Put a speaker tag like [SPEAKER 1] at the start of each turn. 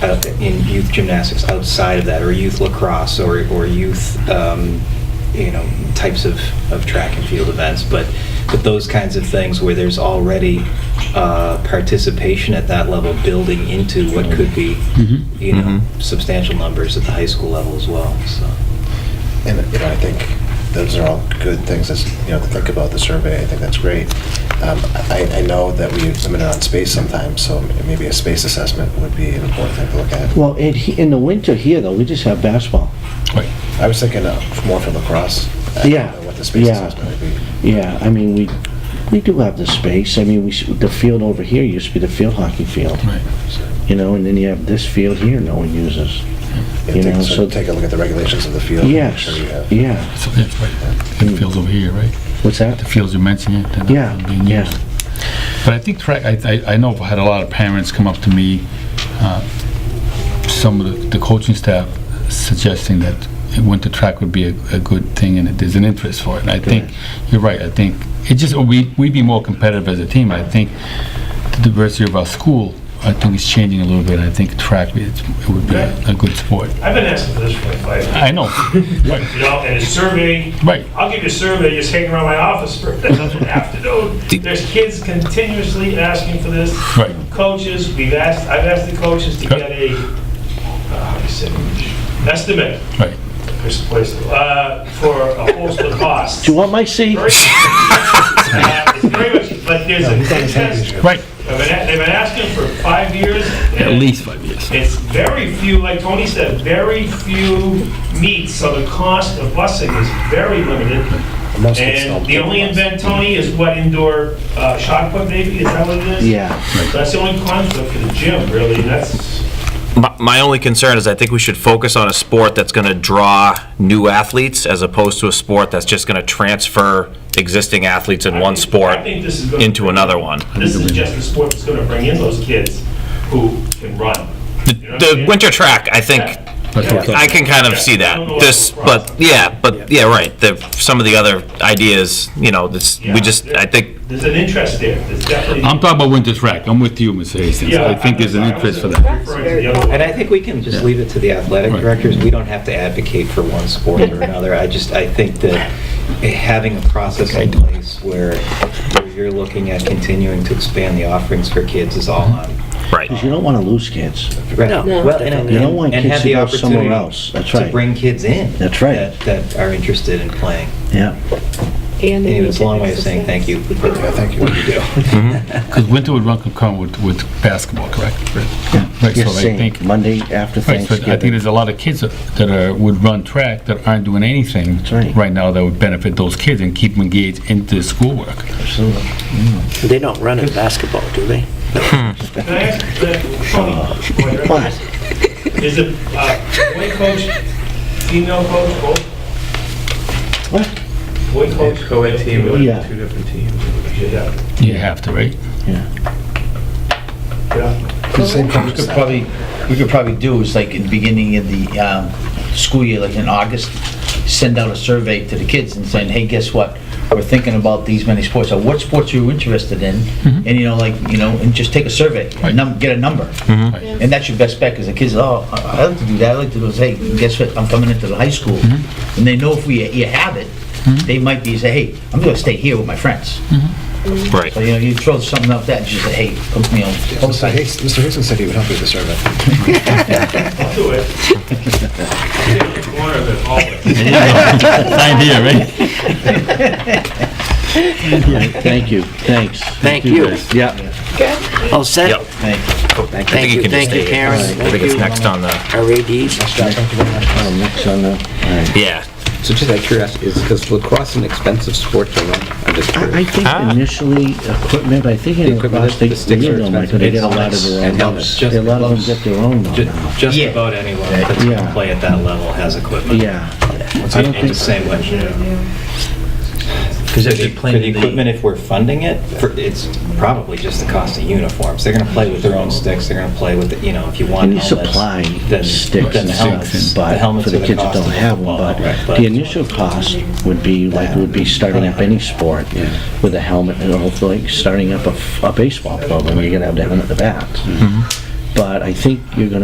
[SPEAKER 1] uh, in youth gymnastics outside of that, or youth lacrosse, or, or youth, um, you know, types of, of track and field events, but, but those kinds of things where there's already uh, participation at that level building into what could be,
[SPEAKER 2] Mhm.
[SPEAKER 3] Mm-hmm.
[SPEAKER 1] you know,
[SPEAKER 4] Mhm.
[SPEAKER 1] substantial numbers at the high school level as well, so.
[SPEAKER 5] And, you know, I think those are all good things, as, you know, to think about the survey, I think that's great. Um, I, I know that we limit it on space sometimes, so maybe a space assessment would be an important thing to look at.
[SPEAKER 2] Well, in, he- in the winter here, though, we just have basketball.
[SPEAKER 5] I was thinking uh, more for lacrosse. I don't
[SPEAKER 2] Yeah,
[SPEAKER 5] know What the space
[SPEAKER 2] yeah.
[SPEAKER 5] assessment would be.
[SPEAKER 2] Yeah, I mean, we, we do have the space. I mean, we, s- the field over here used to be the field hockey field,
[SPEAKER 3] Right.
[SPEAKER 2] you know, and then you have this field here no one uses.
[SPEAKER 5] Yeah,
[SPEAKER 2] You
[SPEAKER 5] take-
[SPEAKER 2] know,
[SPEAKER 5] so
[SPEAKER 2] so-
[SPEAKER 5] Take a look at the regulations of the field. and make
[SPEAKER 2] Yes,
[SPEAKER 5] sure you have-
[SPEAKER 2] yeah.
[SPEAKER 3] So that's right. The fields over here, right?
[SPEAKER 2] What's
[SPEAKER 3] The
[SPEAKER 2] that?
[SPEAKER 3] fields you mentioned, yeah. they're not
[SPEAKER 2] Yeah,
[SPEAKER 3] being
[SPEAKER 2] yeah.
[SPEAKER 3] used. But I think track, I, I, I know I've had a lot of parents come up to me, uh, some of the- the coaching staff suggesting that winter track would be a, a good thing and that there's an interest for it. And I think, you're right, I think, it just, we, we'd be more competitive as a team. I think the diversity of our school, I think is changing a little bit. I think track, it's- it would be a a good sport.
[SPEAKER 6] I've been asked this for five years,
[SPEAKER 3] I know, right,
[SPEAKER 6] you know, and a survey,
[SPEAKER 3] right.
[SPEAKER 6] I'll give you a survey, just hang around my office for an afternoon. There's kids continuously asking for this.
[SPEAKER 3] Right.
[SPEAKER 6] Coaches, we've asked, I've asked the coaches to get a, uh, how do you say, estimate,
[SPEAKER 3] Right.
[SPEAKER 6] Chris, please, uh, for a host of costs.
[SPEAKER 2] Do you want my seat?
[SPEAKER 6] Very- Uh, It's very much, but there's a contest,
[SPEAKER 3] Right.
[SPEAKER 6] I've been a- they've been asking for five years.
[SPEAKER 3] At
[SPEAKER 6] and-
[SPEAKER 3] least five years.
[SPEAKER 6] It's very few, like Tony said, very few meets, so the cost of busing is very limited.
[SPEAKER 5] Most of it's
[SPEAKER 6] And
[SPEAKER 5] not-
[SPEAKER 6] the only event, Tony, is what indoor uh, shot put maybe, is that what it is?
[SPEAKER 2] Yeah,
[SPEAKER 6] That's the only concept for the gym, really, and that's,
[SPEAKER 4] My, my only concern is I think we should focus on a sport that's going to draw new athletes as opposed to a sport that's just going to transfer existing athletes in
[SPEAKER 6] I
[SPEAKER 4] one
[SPEAKER 6] think-
[SPEAKER 4] sport
[SPEAKER 6] I think this is gonna-
[SPEAKER 4] into another one.
[SPEAKER 6] this is just the sport that's gonna bring in those kids who can run. You know what I'm
[SPEAKER 4] The
[SPEAKER 6] saying?
[SPEAKER 4] winter track, I think, I can kind of see
[SPEAKER 6] I don't know
[SPEAKER 4] that.
[SPEAKER 6] what
[SPEAKER 4] This,
[SPEAKER 6] the process-
[SPEAKER 4] but, yeah, but, yeah, right, the, some of the other ideas, you know, this,
[SPEAKER 6] Yeah,
[SPEAKER 4] we just,
[SPEAKER 6] there-
[SPEAKER 4] I think,
[SPEAKER 6] There's an interest there, there's definitely.
[SPEAKER 3] I'm talking about winter track. I'm with you, Mr. Hastings.
[SPEAKER 6] Yeah,
[SPEAKER 3] I think there's an
[SPEAKER 6] I'm
[SPEAKER 3] interest for
[SPEAKER 6] referring
[SPEAKER 3] that.
[SPEAKER 6] to the other one.
[SPEAKER 1] And I think we can just leave it to the athletic
[SPEAKER 3] Right.
[SPEAKER 1] directors. We don't have to advocate for one sport or another. I just, I think that having a process in place where where you're looking at continuing to expand the offerings for kids is all on.
[SPEAKER 4] right.
[SPEAKER 2] 'cause you don't want to lose kids.
[SPEAKER 1] Right. Well, and- and-
[SPEAKER 2] You don't want
[SPEAKER 1] and
[SPEAKER 2] kids
[SPEAKER 1] have
[SPEAKER 2] to
[SPEAKER 1] the
[SPEAKER 2] go somewhere
[SPEAKER 1] opportunity
[SPEAKER 2] else. That's
[SPEAKER 1] To
[SPEAKER 2] right.
[SPEAKER 1] bring kids in.
[SPEAKER 2] That's right.
[SPEAKER 1] that- That are interested in playing.
[SPEAKER 2] Yeah.
[SPEAKER 7] And
[SPEAKER 1] Anyway, it's a long way of saying thank you for
[SPEAKER 5] Yeah, thank you.
[SPEAKER 1] what you do.
[SPEAKER 3] Because winter would run concurrent with, with basketball, correct? Right,
[SPEAKER 2] You're
[SPEAKER 3] so I
[SPEAKER 2] saying
[SPEAKER 3] think,
[SPEAKER 2] Monday after
[SPEAKER 3] right, so I think
[SPEAKER 2] Thanksgiving.
[SPEAKER 3] there's a lot of kids that- that are, would run track that aren't doing anything
[SPEAKER 2] right.
[SPEAKER 3] right now that would benefit those kids and keep them engaged into schoolwork.
[SPEAKER 2] Absolutely.
[SPEAKER 8] They don't run in basketball, do they?
[SPEAKER 6] Can I ask, uh, Tony,
[SPEAKER 2] Come on.
[SPEAKER 6] Is it uh, boy coach, female coach, both?
[SPEAKER 2] What?
[SPEAKER 6] Boy coach? Co-ed team,
[SPEAKER 2] Yeah.
[SPEAKER 6] two different teams. Yeah,
[SPEAKER 3] You have to, right?
[SPEAKER 6] yeah.
[SPEAKER 9] We could probably, we could probably do is like in the beginning of the um, school year, like in August, send out a survey to the kids and saying, hey, guess what? We're thinking about these many sports, or what sports are you interested in? And, you know, like, you know, and just take a survey, a num- get a number. And that's your best bet, because the kids, oh, I I like to do that, I like to do, hey, guess what, I'm coming into the high school. And they know if we, you have it, they might be, say, hey, I'm gonna stay here with my friends.
[SPEAKER 4] Right.
[SPEAKER 9] So, you know, you throw something up that, just say, hey, come, you know, come
[SPEAKER 5] Mr. Hast- Oh, Mr. Hastings said he would help you with the survey.
[SPEAKER 6] I'll do it. Take the corner of it always.
[SPEAKER 3] Sign here, right?
[SPEAKER 2] Thank you, thanks.
[SPEAKER 8] Thank you.
[SPEAKER 2] guys. Yeah.
[SPEAKER 8] All set?
[SPEAKER 4] Yep.
[SPEAKER 9] thank you.
[SPEAKER 4] I think
[SPEAKER 8] you, thank you,
[SPEAKER 4] can just stay here.
[SPEAKER 8] Karen,
[SPEAKER 4] I think
[SPEAKER 8] thank
[SPEAKER 4] it's
[SPEAKER 8] you.
[SPEAKER 4] next on the,
[SPEAKER 8] Our ADs?
[SPEAKER 2] Oh, next on the, all right.
[SPEAKER 4] yeah.
[SPEAKER 10] So just out of curiosity, is, is lacrosse an expensive sport to run? I'm just
[SPEAKER 2] I I
[SPEAKER 10] curious.
[SPEAKER 2] think Ah. initially, equipment, I think in the
[SPEAKER 10] equipment,
[SPEAKER 2] lacrosse, they,
[SPEAKER 10] the sticks
[SPEAKER 2] you
[SPEAKER 10] are
[SPEAKER 2] know, Mike,
[SPEAKER 10] expensive.
[SPEAKER 2] they get a lot of
[SPEAKER 10] And
[SPEAKER 2] their own.
[SPEAKER 10] helmets.
[SPEAKER 2] They- A lot of them get their own though
[SPEAKER 1] Ju-
[SPEAKER 2] now.
[SPEAKER 1] Just
[SPEAKER 9] Yeah.
[SPEAKER 1] about anyone that
[SPEAKER 2] Yeah.
[SPEAKER 1] can play at that level has equipment.
[SPEAKER 2] Yeah,
[SPEAKER 1] It's
[SPEAKER 2] I don't think-
[SPEAKER 1] the same way.
[SPEAKER 9] Because if
[SPEAKER 1] For
[SPEAKER 9] they
[SPEAKER 1] the-
[SPEAKER 9] play
[SPEAKER 1] For the
[SPEAKER 9] in the-
[SPEAKER 1] equipment, if we're funding it, for- it's probably just the cost of uniforms. They're going to play with their own sticks, they're going to play with, the- you know, if you want
[SPEAKER 2] and you
[SPEAKER 1] helmets.
[SPEAKER 2] supply
[SPEAKER 1] then-
[SPEAKER 2] sticks
[SPEAKER 1] then
[SPEAKER 2] and
[SPEAKER 1] the
[SPEAKER 2] helmets,
[SPEAKER 1] helmets,
[SPEAKER 2] but
[SPEAKER 1] the helmets
[SPEAKER 2] for
[SPEAKER 1] are
[SPEAKER 2] the kids that
[SPEAKER 1] cost
[SPEAKER 2] don't
[SPEAKER 1] of
[SPEAKER 2] have one,
[SPEAKER 1] football, right,
[SPEAKER 2] but the initial cost would be like, would be starting up any sport with a helmet, and hopefully like
[SPEAKER 1] Mm-hmm.
[SPEAKER 2] starting up a, f- a baseball program, you're gonna have to have it at the bat. But I think you're gonna